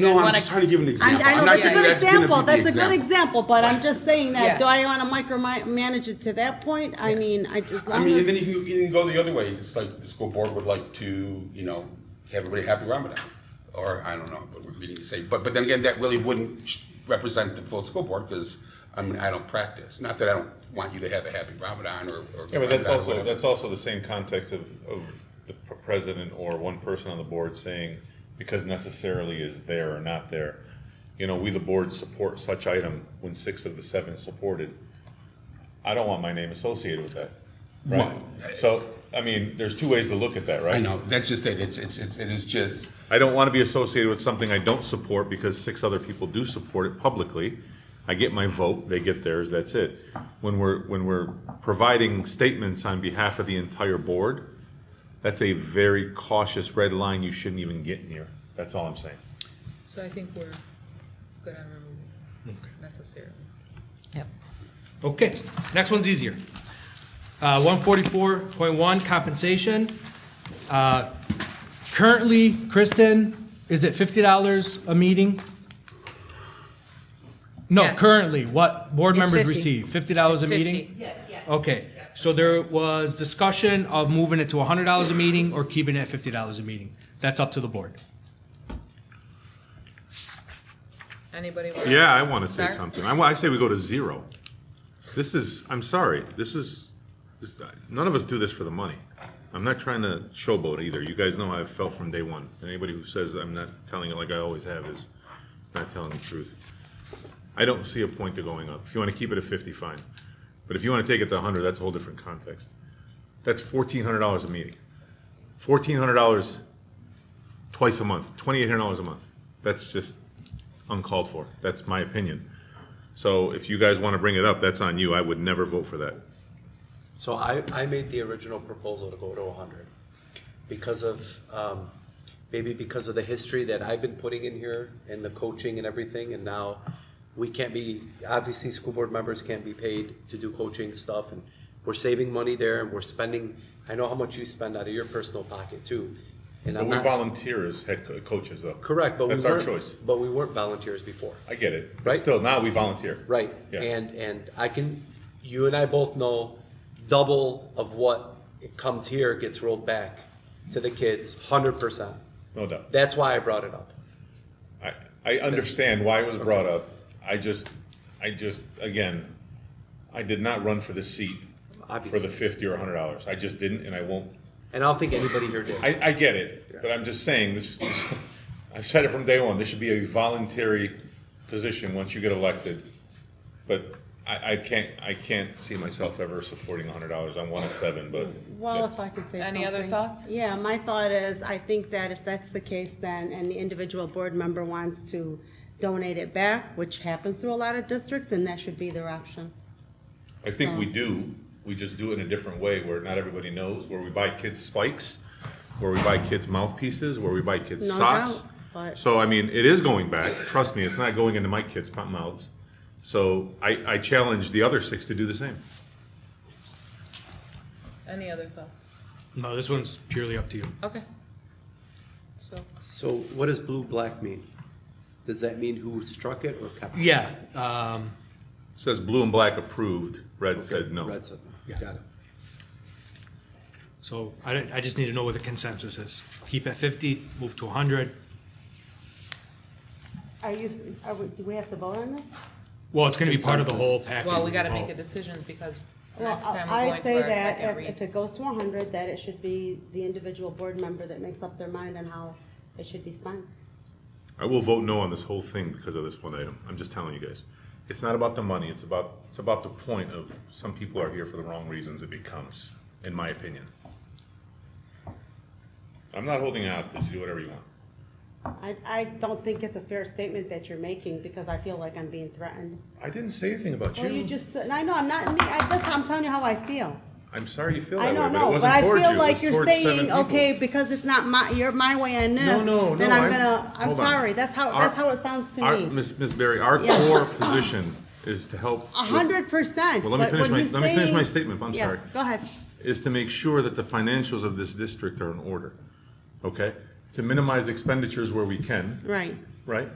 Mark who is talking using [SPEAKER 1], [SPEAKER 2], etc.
[SPEAKER 1] guys
[SPEAKER 2] No, I'm
[SPEAKER 1] wanna-
[SPEAKER 2] just trying to give an
[SPEAKER 1] I'm-
[SPEAKER 2] example.
[SPEAKER 1] I
[SPEAKER 2] I'm
[SPEAKER 1] know,
[SPEAKER 2] not
[SPEAKER 1] that's a
[SPEAKER 2] saying
[SPEAKER 1] good
[SPEAKER 2] that's gonna be
[SPEAKER 1] example,
[SPEAKER 2] the
[SPEAKER 1] that's a good
[SPEAKER 2] example.
[SPEAKER 1] example, but I'm just saying
[SPEAKER 3] Yeah.
[SPEAKER 1] that, do I wanna micromanage it to that point? I mean, I just,
[SPEAKER 2] I
[SPEAKER 1] I'm
[SPEAKER 2] mean, and then
[SPEAKER 1] just,
[SPEAKER 2] you can, you can go the other way. It's like the school board would like to, you know, have everybody happy Ramadan, or I don't know what we're meaning to say. But but then again, that really wouldn't represent the full school board because I mean I don't practice. Not that I don't want you to have a happy Ramadan or. or
[SPEAKER 4] Yeah, but
[SPEAKER 2] Ramadan
[SPEAKER 4] that's
[SPEAKER 2] or
[SPEAKER 4] also,
[SPEAKER 2] whatever.
[SPEAKER 4] that's also the same context of, of the p- president or one person on the board saying, because necessarily is there or not there. You know, we the board support such item when six of the seven supported. I don't want my name associated with that, right?
[SPEAKER 2] Right.
[SPEAKER 4] So, I mean, there's two ways to look at that, right?
[SPEAKER 2] I know. That's just it. It's it's, it's it is just.
[SPEAKER 4] I don't want to be associated with something I don't support because six other people do support it publicly. I get my vote, they get theirs, that's it. When we're, when we're providing statements on behalf of the entire board, that's a very cautious red line you shouldn't even get near. That's all I'm saying.
[SPEAKER 3] So I think we're good on removing necessarily.
[SPEAKER 5] Yep. Okay, next one's easier. Uh, 144.1 compensation. Uh, Currently, Kristen, is it $50 a meeting? No,
[SPEAKER 3] Yes.
[SPEAKER 5] currently, what board
[SPEAKER 3] It's
[SPEAKER 5] members
[SPEAKER 3] 50.
[SPEAKER 5] receive, $50 a meeting?
[SPEAKER 3] Yes, yes.
[SPEAKER 5] Okay, so there was discussion of moving it to $100 a meeting or keeping it at $50 a meeting. That's up to the board.
[SPEAKER 3] Anybody? want-
[SPEAKER 4] Yeah, I want to say
[SPEAKER 3] Sir?
[SPEAKER 4] something. I, wa- I say we go to zero. This is, I'm sorry, this is, this, none of us do this for the money. I'm not trying to showboat either. You guys know how I've felt from day one. Anybody who says I'm not telling it like I always have is not telling the truth. I don't see a point to going up. If you want to keep it at fifty, fine. But if you want to take it to hundred, that's a whole different context. That's fourteen hundred dollars a meeting. Fourteen hundred dollars twice a month, twenty-eight hundred dollars a month. That's just uncalled for. That's my opinion. So if you guys want to bring it up, that's on you. I would never vote for that.
[SPEAKER 6] So I, I made the original proposal to go to hundred because of, um, maybe because of the history that I've been putting in here and the coaching and everything, and now we can't be, obviously, school board members can't be paid to do coaching stuff, and we're saving money there, and we're spending, I know how much you spend out of your personal pocket too. And
[SPEAKER 4] But
[SPEAKER 6] I'm
[SPEAKER 4] we
[SPEAKER 6] not,
[SPEAKER 4] volunteer as head co- coaches, though.
[SPEAKER 6] correct, but we weren't.
[SPEAKER 4] That's our choice.
[SPEAKER 6] But we weren't volunteers before.
[SPEAKER 4] I get it. But
[SPEAKER 6] Right.
[SPEAKER 4] still, now we volunteer.
[SPEAKER 6] Right,
[SPEAKER 4] Yeah.
[SPEAKER 6] and, and I can, you and I both know, double of what it comes here gets rolled back to the kids, hundred percent.
[SPEAKER 4] No doubt.
[SPEAKER 6] That's why I brought it up.
[SPEAKER 4] I, I understand why it was brought up. I just, I just, again, I did not run for the seat for the
[SPEAKER 6] Obviously.
[SPEAKER 4] fifty or a hundred dollars. I just didn't, and I won't.
[SPEAKER 6] And I don't think anybody here did.
[SPEAKER 4] I, I get it, but I'm just saying, this, this, I've said it from day one, this should be a voluntary position once you get elected. But I, I can't, I can't see myself ever supporting hundred dollars on one of seven, but.
[SPEAKER 1] well, if I could say something.
[SPEAKER 3] Any other thoughts?
[SPEAKER 1] Yeah, my thought is, I think that if that's the case, then, and the individual board member wants to donate it back, which happens through a lot of districts, and that should be their option.
[SPEAKER 4] I think we do, we just do it in a different way where not everybody knows, where we buy kids spikes, where we buy kids mouthpieces, where we buy kids
[SPEAKER 1] No
[SPEAKER 4] socks.
[SPEAKER 1] doubt, but-
[SPEAKER 4] So I mean, it is going back, trust me, it's not going into my kids' mouths. So I, I challenge the other six to do the same.
[SPEAKER 3] Any other thoughts?
[SPEAKER 5] No, this one's purely up to you.
[SPEAKER 3] Okay. So,
[SPEAKER 6] So what does blue, black mean? Does that mean who struck it or kept it?
[SPEAKER 5] Yeah, um,
[SPEAKER 4] Says blue and black approved, red said no.
[SPEAKER 6] Red said no. Got it.
[SPEAKER 5] so I, don't- I just need to know what the consensus is. Keep at 50, move to 100.
[SPEAKER 1] Are you, are we, do we have to vote on this?
[SPEAKER 5] Well, it's gonna be part of the whole
[SPEAKER 6] Consensus.
[SPEAKER 5] package.
[SPEAKER 3] well, we gotta
[SPEAKER 5] Oh.
[SPEAKER 3] make a decision because
[SPEAKER 1] Well,
[SPEAKER 3] next time we're
[SPEAKER 1] I
[SPEAKER 3] going
[SPEAKER 1] say
[SPEAKER 3] to our
[SPEAKER 1] that
[SPEAKER 3] second
[SPEAKER 1] if, if
[SPEAKER 3] read.
[SPEAKER 1] it goes to hundred, that it should be the individual board member that makes up their mind on how it should be spent.
[SPEAKER 4] I will vote no on this whole thing because of this one item. I'm just telling you guys. It's not about the money, it's about, it's about the point of some people are here for the wrong reasons it becomes, in my opinion. I'm not holding a hostage, do whatever you want.
[SPEAKER 1] I, I don't think it's a fair statement that you're making, because I feel like I'm being threatened.
[SPEAKER 4] I didn't say anything about
[SPEAKER 1] Well, you
[SPEAKER 4] you.
[SPEAKER 1] just, and I know, I'm not, I, that's how I'm telling you how I feel.
[SPEAKER 4] I'm sorry you feel
[SPEAKER 1] I
[SPEAKER 4] that way,
[SPEAKER 1] don't
[SPEAKER 4] but it
[SPEAKER 1] know, but
[SPEAKER 4] wasn't
[SPEAKER 1] I
[SPEAKER 4] towards you,
[SPEAKER 1] feel
[SPEAKER 4] it was
[SPEAKER 1] like you're
[SPEAKER 4] towards seven
[SPEAKER 1] saying,
[SPEAKER 4] people.
[SPEAKER 1] okay, because it's not my, you're my way on
[SPEAKER 4] No,
[SPEAKER 1] this,
[SPEAKER 4] no, no.
[SPEAKER 1] then I'm gonna, I'm
[SPEAKER 4] hold on.
[SPEAKER 1] sorry, that's how,
[SPEAKER 4] Our-
[SPEAKER 1] that's how it sounds
[SPEAKER 4] our-
[SPEAKER 1] to me.
[SPEAKER 4] Miss, Miss Barry, our
[SPEAKER 1] Yes.
[SPEAKER 4] core position is to help.
[SPEAKER 1] A hundred percent.
[SPEAKER 4] Well, let me
[SPEAKER 1] but
[SPEAKER 4] finish
[SPEAKER 1] when
[SPEAKER 4] my-
[SPEAKER 1] he's
[SPEAKER 4] let me finish my
[SPEAKER 1] saying-
[SPEAKER 4] statement. I'm sorry.
[SPEAKER 1] Yes, go ahead.
[SPEAKER 4] is to make sure that the financials of this district are in order, okay? to minimize expenditures where we can,
[SPEAKER 1] Right.
[SPEAKER 4] right?